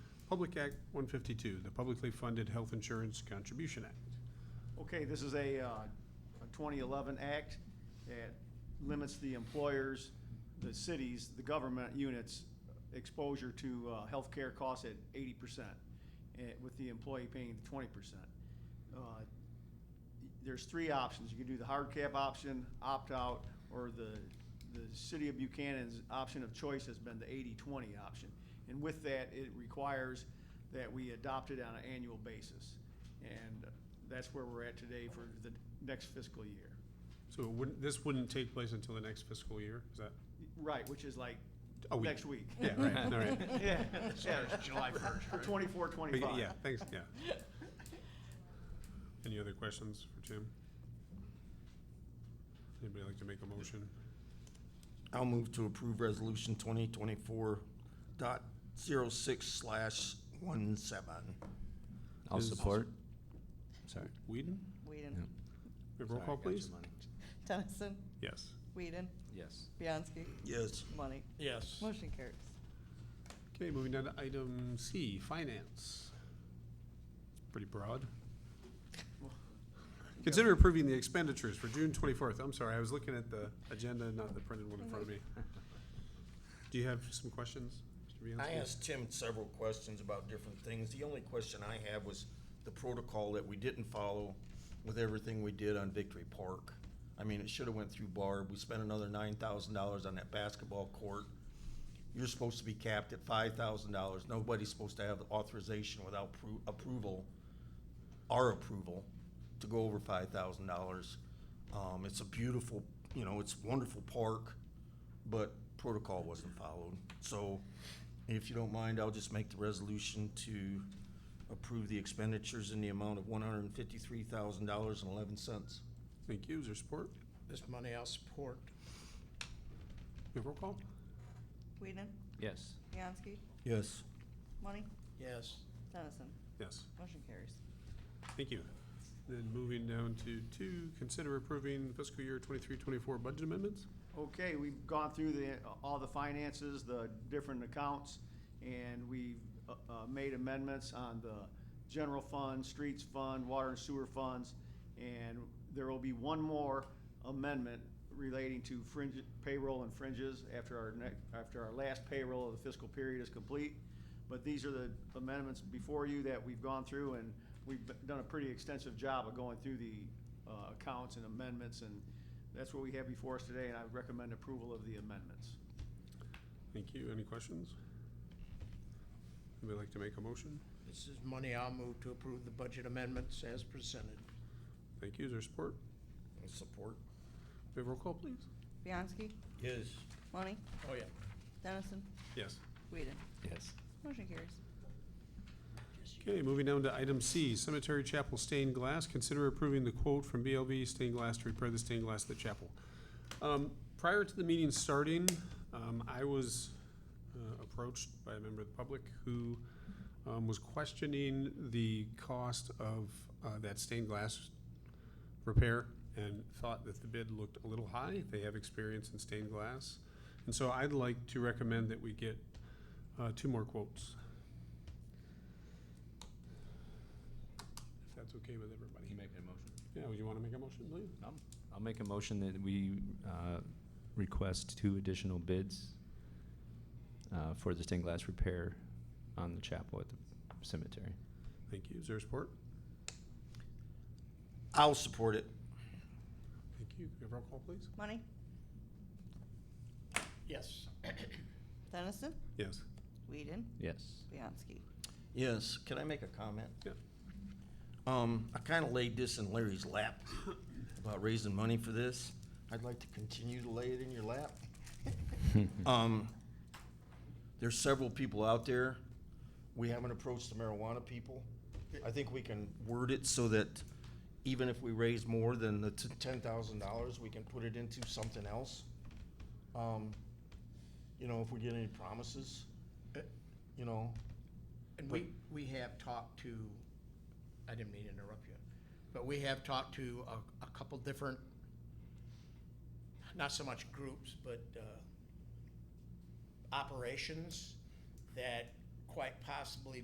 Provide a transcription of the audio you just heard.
Public Act 152, the Publicly Funded Health Insurance Contribution Act. Okay, this is a, uh, a 2011 act that limits the employers, the cities, the government units' exposure to, uh, healthcare costs at 80%, eh, with the employee paying 20%. Uh, There's three options. You can do the hard cap option, opt-out, or the, the city of Buchanan's option of choice has been the 80-20 option. And with that, it requires that we adopt it on an annual basis. And that's where we're at today for the next fiscal year. So it wouldn't, this wouldn't take place until the next fiscal year, is that? Oh, Right, which is like a week? next week. Yeah, right, all right. Yeah. Starts July 1st, right? Twenty-four, twenty-five. Yeah, thanks, yeah. Any other questions for Jim? Anybody like to make a motion? I'll move to approve resolution twenty twenty-four dot zero six slash one seven. I'll Is- support. Sorry. Whedon? Whedon. We have Roll Sorry, call, got your please? money. Tennyson. Yes. Whedon. Yes. Bianski. Yes. Money. Yes. Motion carries. Okay, moving down to item C, finance. It's Pretty broad. Consider approving the expenditures for June twenty-fourth. I'm sorry, I was looking at the agenda, not the printed one in front of me. Do you have some questions, Mr. Bianski? I asked Tim several questions about different things. The only question I have was the protocol that we didn't follow with everything we did on Victory Park. I mean, it should have went through Barb. We spent another nine thousand dollars on that basketball court. You're supposed to be capped at five thousand dollars. Nobody's supposed to have the authorization without pro- approval, our approval, to go over five thousand dollars. Um, it's a beautiful, you know, it's wonderful park but protocol wasn't followed. So if you don't mind, I'll just make the resolution to approve the expenditures in the amount of one hundred and fifty-three thousand dollars and eleven cents. Thank you. Is there support? This money I'll support. We have roll call? Whedon. Yes. Bianski. Yes. Money. Yes. Tennyson. Yes. Motion carries. Thank you. Then moving down to two, consider approving fiscal year 23-24 budget amendments. Okay, we've gone through the, all the finances, the different accounts, and we've, uh, uh, made amendments on the general fund, streets fund, water and sewer funds, and there will be one more amendment relating to fringe, payroll and fringes after our next, after our last payroll of the fiscal period is complete. But these are the amendments before you that we've gone through, and we've done a pretty extensive job of going through the, uh, accounts and amendments and that's what we have before us today, and I recommend approval of the amendments. Thank you. Any questions? Anybody like to make a motion? This is money I'll move to approve the budget amendments as presented. Thank you. Is there support? Support? We have roll call, please? Bianski. Yes. Money. Oh, yeah. Tennyson. Yes. Whedon. Yes. Motion carries. Okay, moving down to item C, Cemetery Chapel Stained Glass. Consider approving the quote from BLB Stained Glass to repair the stained glass at the chapel. Um, Prior to the meeting starting, um, I was uh, approached by a member of the public who um, was questioning the cost of uh, that stained glass repair and thought that the bid looked a little high. They have experience in stained glass. And so I'd like to recommend that we get uh, two more quotes. If that's okay with everybody. You making a motion? Yeah, would you want to make a motion, please? I'll make a motion that we uh, request two additional bids uh, for the stained glass repair on the chapel at the cemetery. Thank you. Is there support? I'll support it. Thank you. Can we have roll call, please? Money. Yes. Tennyson. Yes. Whedon. Yes. Bianski. Yes. Can I make a comment? Yeah. Um, I kinda laid this in Larry's lap about raising money for this. I'd like to continue to lay it in your lap. Um, there's several people out there. We haven't approached the marijuana people. I think we can word it so that even if we raise more than the ten thousand dollars, we can put it into something else. Um, you know, if we get any promises, you know, And we, we have talked to, I didn't mean to interrupt you, but we have talked to a, a couple different, not so much groups, but, uh, operations that quite possibly